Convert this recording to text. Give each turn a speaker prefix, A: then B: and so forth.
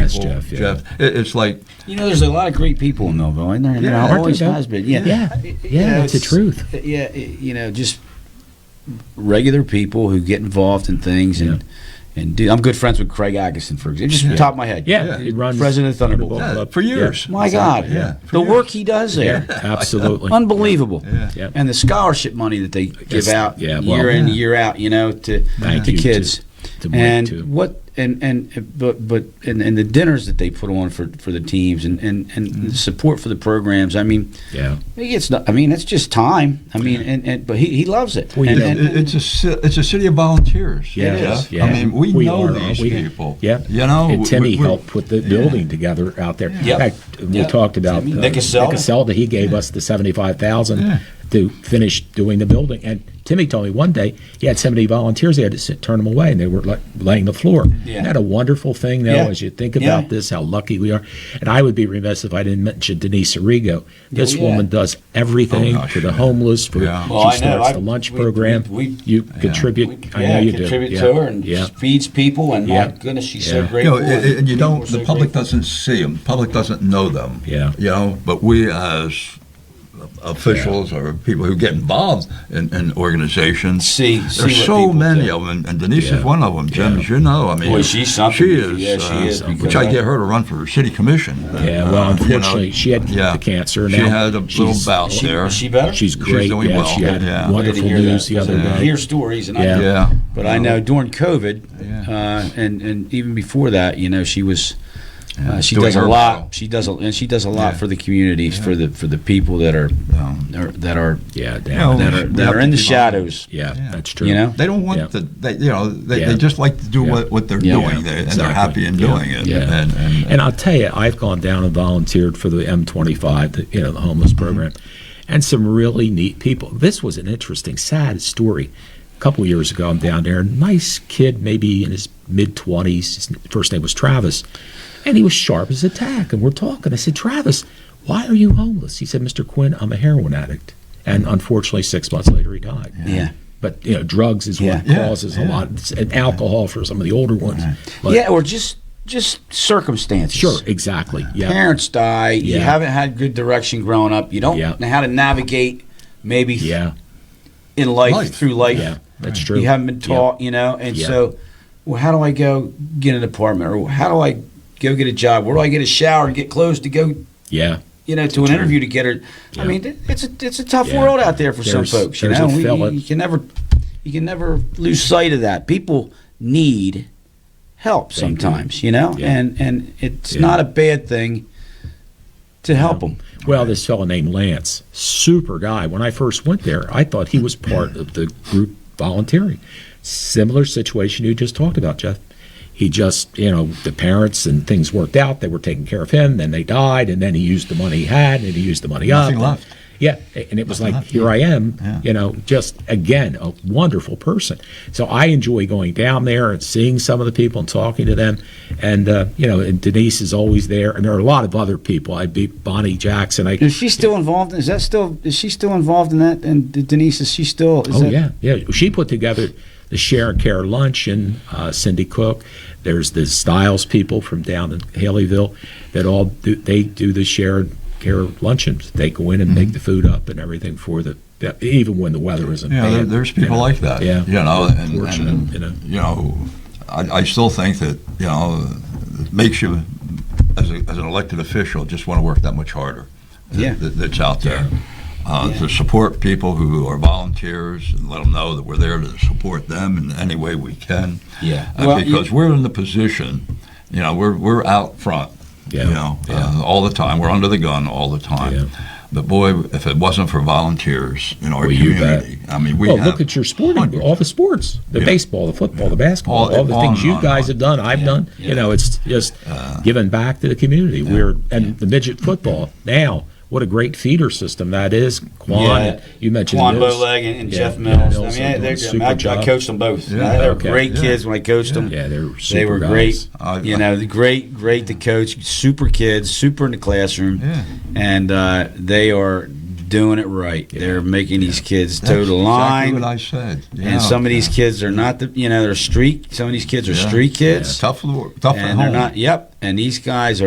A: That's
B: people,
A: Jeff, yeah.
B: It- it's like
C: You know, there's a lot of great people in Millville, and there,
B: Yeah,
C: yeah,
B: aren't
C: there
B: there,
C: always
A: though?
C: has been. Yeah,
A: Yeah.
C: You
A: Yeah,
C: know,
A: that's the
C: it's-
A: truth.
C: Yeah, it- you know, just regular people who get involved in things and and do. I'm good friends with Craig Agason, for example. Just from the top of my head.
A: Yeah,
B: Yeah.
A: it runs
C: President of Thunderbolt.
B: yeah,
A: Club.
B: for
A: Yeah.
B: years.
C: My
B: Exactly,
C: God,
B: yeah, for
C: the
B: years.
C: work he does there,
A: Absolutely.
C: unbelievable.
B: Yeah.
A: Yeah.
C: And the scholarship money that they give
A: Yes,
C: out
A: yeah,
C: year
A: well,
C: in
B: yeah.
C: year out, you know, to
A: Thank
C: to
A: you,
C: kids.
A: to- to
C: and
A: Mike, too.
C: what and and but but and, and the dinners that they put on for for the teams and and and the support for the programs. I mean,
A: Yeah.
C: He gets. no- I mean, it's just time. I mean, and, and but he, he loves it.
A: Well, he
C: and,
A: does.
B: It-
C: and-
B: it- it's a ci- it's a city of volunteers.
A: Yeah,
C: it
B: Jeff.
A: is, yeah.
B: I mean, we,
A: We
B: know
A: are,
B: these
A: we-
B: people.
A: Yeah.
B: you know.
A: And
B: we-
A: Timmy
B: we- we-
A: helped put the
B: yeah.
A: building together out there.
C: Yep.
A: In fact, we
C: Yep.
A: talked about uh,
C: Timmy. Nick Cassell.
A: Nick Cassell, that he gave us the seventy-five thousand
B: Yeah.
A: to finish doing the building. And Timmy told me one day he had seventy volunteers. He had to sit, turn them away, and they were like laying the floor.
C: Yeah.
A: Isn't that a wonderful thing, though,
C: Yeah.
A: as you think
C: Yeah.
A: about this, how lucky we are. And I would be remiss if I didn't mention Denise Arrigo. This
C: Yeah.
A: woman does everything
B: Oh, gosh,
A: for the
B: yeah.
A: homeless. For
B: Yeah.
A: she
C: Well, I know.
A: starts
C: I-
A: the lunch
C: we-
A: program.
C: we- we-
A: you
B: Yeah.
A: contribute. I know
C: yeah,
A: you
C: contribute
A: do.
C: to
A: yeah.
C: her and
A: yeah.
C: feeds people. And
A: Yeah.
C: my goodness, she's
A: Yeah.
C: so
B: You
C: grateful.
B: know, it- it- and you
C: people
B: don't.
C: are
B: The
C: so
B: public
C: grateful.
B: doesn't see them. Public doesn't know them.
A: Yeah.
B: you know. But we as officials or people who get involved in, in organizations
C: See- see
B: there's
C: what
B: so
C: people
B: many
C: do.
B: of them and Denise
A: Yeah.
B: is one of them Jim
A: Yeah.
B: as you know I mean
C: Boy, she's something.
B: she is
C: Yeah, she
B: uh,
C: is,
B: which I
C: because-
B: get her to run for city commission
A: Yeah, well,
B: Uh, you know,
A: unfortunately, she had
B: yeah.
A: the cancer.
B: she
A: now
B: had a little
A: she's-
B: bout
C: She,
B: there
C: is she better?
A: She's great.
B: doing
A: yeah,
B: well.
A: she had
B: Yeah.
A: wonderful
C: Glad to hear
A: news
C: that,
A: the other
C: because I
A: day.
C: Hear stories, and
A: Yeah.
C: I,
B: yeah
C: but I know during COVID,
B: Yeah.
C: uh, and and even before that, you know, she was. Uh, she
B: Doing
C: does a
B: her
C: lot.
B: well.
C: She does a, and she does a lot
B: Yeah.
C: for the communities, for the for the people that are,
B: Yeah.
C: are that are
A: Yeah,
B: Yeah,
A: damn.
C: that
A: Yeah,
B: we
C: are
B: should- we
C: that
B: have
C: are
B: to
C: in the
B: keep on.
C: shadows.
A: yeah,
B: Yeah.
A: that's true.
C: You know?
B: They don't want
A: Yeah.
B: the, they, you know, they,
A: Yeah.
B: they just like to do
A: Yeah.
B: what, what they're
C: Yeah.
B: doing, they, and they're
A: Exactly.
B: happy in
A: Yeah.
B: doing it.
A: Yeah.
B: And, and,
A: And I'll tell you, I've gone down and volunteered for the M25, the, you know, the homeless
C: Mm-hmm.
A: program, and some really neat people. This was an interesting, sad story. A couple years ago, I'm down there. Nice kid, maybe in his mid 20s. His first name was Travis, and he was sharp as a tack. And we're talking. I said, Travis, why are you homeless? He said, Mr. Quinn, I'm a heroin addict. And unfortunately, six months later, he died.
C: Yeah.
A: But you know, drugs is what
B: Yeah. Yeah,
A: causes a
B: yeah.
A: lot, and alcohol for some of the older ones. But-
C: yeah, or just just circumstances.
A: sure, exactly. Yeah,
C: Parents die. You
A: Yeah.
C: haven't had good direction growing up. You don't
A: Yeah.
C: know how to navigate maybe
A: yeah,
C: in life,
B: Life.
C: through life.
A: yeah. That's true.
C: You haven't been
A: Yeah.
C: taught, you know. And
A: Yeah.
C: so, well, how do I go get an apartment, or how do I go get a job? Where do I get a shower and get clothes to go,
A: Yeah,
C: you know, to an interview to get her? I
A: Yeah.
C: mean, it- it's a it's a tough
A: Yeah.
C: world out there for
A: There's-
C: some folks. You
A: there's a
C: know, We-
A: fella-
C: you can never you can never lose sight of that. People need help
A: They do.
C: sometimes, you know,
A: Yeah.
C: and and it's
A: Yeah.
C: not a bad thing to help them.
A: Well, this fellow named Lance, super guy. When I first went there, I thought he was part of the group volunteering. Similar situation you just talked about, Jeff. He just, you know, the parents and things worked out. They were taking care of him. Then they died, and then he used the money he had, and he used the money
B: Nothing
A: up.
B: left.
A: Yeah, and it was like,
B: left,
A: here I am,
B: Yeah.
A: you know, just again, a wonderful person. So I enjoy going down there and seeing some of the people and talking to them. And, uh, you know, and Denise is always there. And there are a lot of other people. I beat Bonnie Jackson. I,
C: Is she still involved? Is that still? Is she still involved in that? And Denise, is she still? Is
A: Oh
C: that,
A: yeah, yeah. She put together the Share and Care luncheon. Uh, Cindy Cook. There's the Styles people from down in Haleyville that all do, they do the Share and Care luncheons. They go in and make
B: Mm-hmm.
A: the food up and everything for the even when the weather isn't.
B: yeah, there,
A: bad,
B: there's
A: you
B: people
A: know.
B: like that.
A: Yeah.
B: You know, and,
A: Fortunate,
B: and,
A: you
B: you
A: know.
B: know, I, I still think that, you know, it makes you, as, a, as an elected official, just want to work that much harder. that-
C: Yeah.
B: That, that's out there. Uh, To support people who are volunteers and let them know that we're there to support them in any way we can.
C: Yeah.
B: Uh,
C: Well, you-
B: because we're in the position, you know, we're, we're out front.
A: Yeah.
B: You know,
A: yeah.
B: uh, all the time. We're under the gun all the time.
A: Yeah.
B: But boy, if it wasn't for volunteers in our
A: Well, you bet.
B: community, I mean, we
A: well,
B: have
A: Oh, look at your sporting,
B: hundreds.
A: all the sports, the
B: Yeah.
A: baseball, the football, the basketball, all,
B: All-
A: the
B: on
A: things
B: and
A: you
B: on and
A: guys
B: on. Uh,
A: have done, I've done. You know, it's just giving back to the community. We're and the midget football now. What a great feeder system that is, Quan.
C: Yeah.
A: and You mentioned
C: Quan
A: Mills.
C: Bowleg and, and
A: Yeah,
C: Jeff
A: yeah,
C: Mills.
A: Mills
C: I
A: are doing
C: mean,
A: a
C: they're, I, mean,
A: super
C: I, I
A: job.
C: coached them both.
B: Yeah.
C: they were
A: Okay.
C: great
B: Yeah.
C: kids when I coached them.
A: Yeah, they were super
C: they were
A: guys.
C: great.
B: I-
C: you know, the great, great to coach. Super kids, super in the classroom,
B: Yeah.
C: and uh, they are doing it right. They're making these kids
B: That's
C: toe the line.
B: Exactly what I said. you know.
C: and some of these kids are not the, you know, they're street. Some of these kids are
B: Yeah.
C: street kids.
B: It's tough, lo- tough at
C: and they're
B: home.
C: not. Yep, and these guys are.